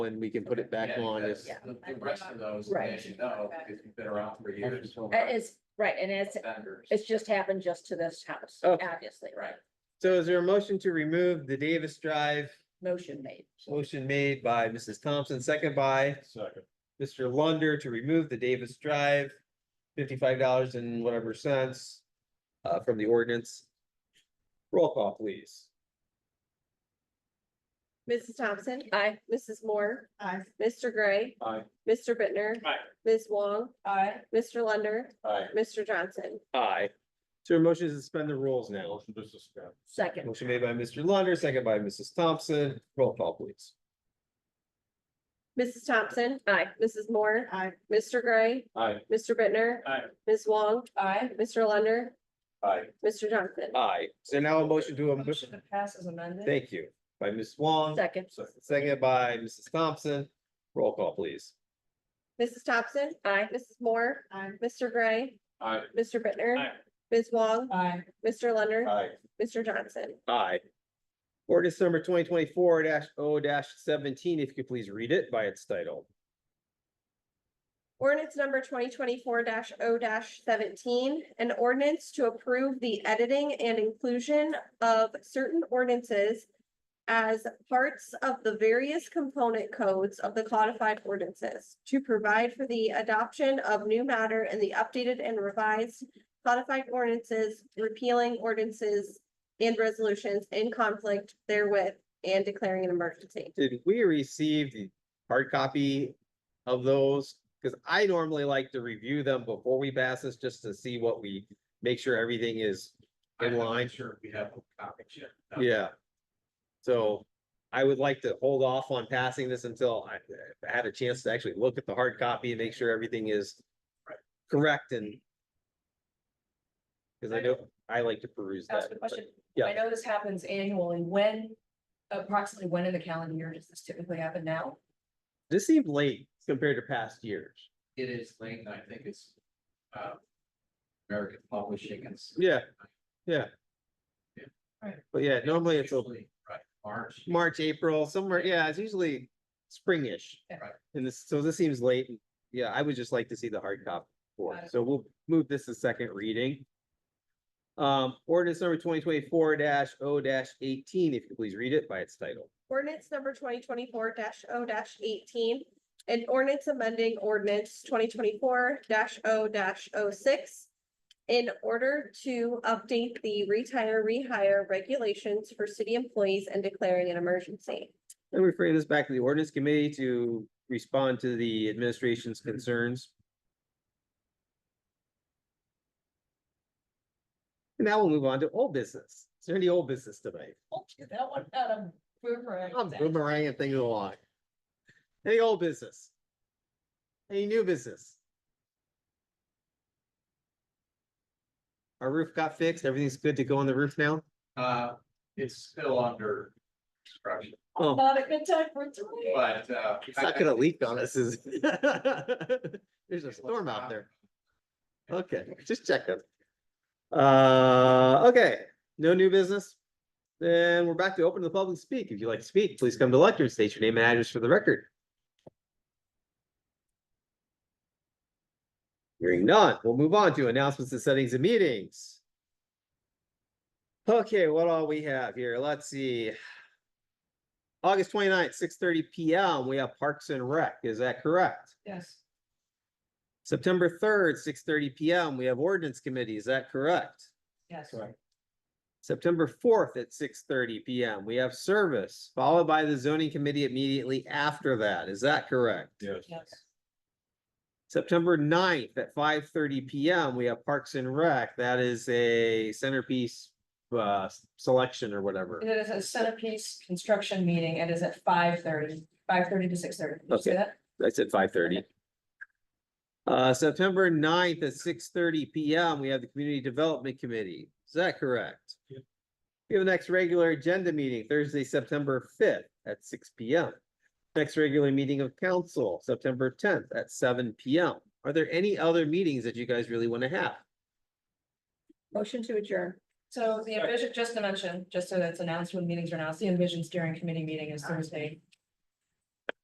when we can put it back Yeah, on because is, Yeah. The the rest of those, Right. as you know, because you've been around for years. It is, right, and Uh, it's, Vendors. it's just happened just to this house, Okay. obviously, right? Right. So is there a motion to remove the Davis Drive? Motion made. Motion made by Mrs. Thompson, second by Second. Mr. Lunder to remove the Davis Drive. Fifty-five dollars and whatever cents uh from the ordinance. Roll call, please. Mrs. Thompson. Aye. Mrs. Moore. Aye. Mr. Gray. Aye. Mr. Bittner. Aye. Ms. Wong. Aye. Mr. Lunder. Aye. Mr. Johnson. Aye. So your motion is to suspend the rules now. Motion to suspend. Second, Motion made by Mr. Lunder, second by Mrs. Thompson. Roll call, please. Mrs. Thompson. aye. Mrs. Moore. Aye. Mr. Gray. Aye. Mr. Bittner. Aye. Ms. Wong. Aye. Mr. Lunder. Aye. Mr. Johnson. Aye. So now a motion to, am- pass as amended. thank you, by Ms. Wong, Second, second by Mrs. Thompson. Roll call, please. Mrs. Thompson. aye. Mrs. Moore. Aye. Mr. Gray. Aye. Mr. Bittner. Aye. Ms. Wong. Aye. Mr. Lunder. Aye. Mr. Johnson. Aye. Ordinance number twenty twenty-four 0 seventeen, if you could please read it by its title. Ordinance number twenty twenty-four 0 seventeen, an ordinance to approve the editing and inclusion of certain ordinances as parts of the various component codes of the codified ordinances to provide for the adoption of new matter in the updated and revised codified ordinances, repealing ordinances and resolutions in conflict therewith and declaring an emergency. Did we receive the hard copy of those? Because I normally like to review them before we pass this, just to see what we, make sure everything is I'm in not line. Sure, we have copies yet. No. Yeah. So I would like to hold off on passing this until I I had a chance to actually look at the hard copy and make sure everything is correct and because I know I like to peruse that. ask a question? yeah. I know this happens annually. When, approximately when in the calendar year does this typically happen now? This seemed late compared to past years. It is late, and I think it's, uh, American Publishing and. s- Yeah, yeah. Yeah. But yeah, normally it's a Usually, Right, March. March, April, somewhere, yeah, it's usually springish. Yeah. Right. And this, so this seems late. Yeah, I would just like to see the hard copy for, Got it. it. so we'll move this to second reading. Um, ordinance number twenty twenty-four 0 eighteen, if you could please read it by its title. Ordinance number twenty twenty-four 0 eighteen. An ordinance amending ordinance twenty twenty-four 0 6 In order to update the retire, rehire regulations for city employees and declaring an emergency. And referring this back to the ordinance committee to respond to the administration's concerns. And now we'll move on to old business. Is there any old business tonight? That one had a boomerang. I'm boomeranging things along. Any old business? Any new business? Our roof got fixed. Everything's good to go on the roof now? Uh, it's still under construction, Oh, Not a good time for it to leave. but, uh. it's not gonna leak on us, is it? There's a storm out there. Okay, just checking. Uh, okay, no new business? Then we're back to open to the public speak. If you'd like to speak, please come to the lectern, state your name and address for the record. Hearing none, we'll move on to announcements and settings and meetings. Okay, what all we have here? Let's see. August 29th, six thirty P M, we have Parks and Rec, is that correct? Yes. September third, six thirty P M, we have ordinance committee, is that correct? Yes. September fourth at six thirty P M, we have service, followed by the zoning committee immediately after that, is that correct? Yes. Yes. September 9th at five thirty P M, we have Parks and Rec, that is a centerpiece uh, selection or whatever. It is a centerpiece construction meeting. It is at five thirty, five thirty to six thirty. Did you say Okay. that? I said five thirty. Uh, September 9th at six thirty P M, we have the Community Development Committee. Is that correct? We have the next regular agenda meeting Thursday, September fifth at six P M. Next regular meeting of council, September tenth at seven P M. Are there any other meetings that you guys really want to have? Motion to adjourn. So the envision, just to mention, just so that's announced when meetings are announced, the envision steering committee meeting is Thursday,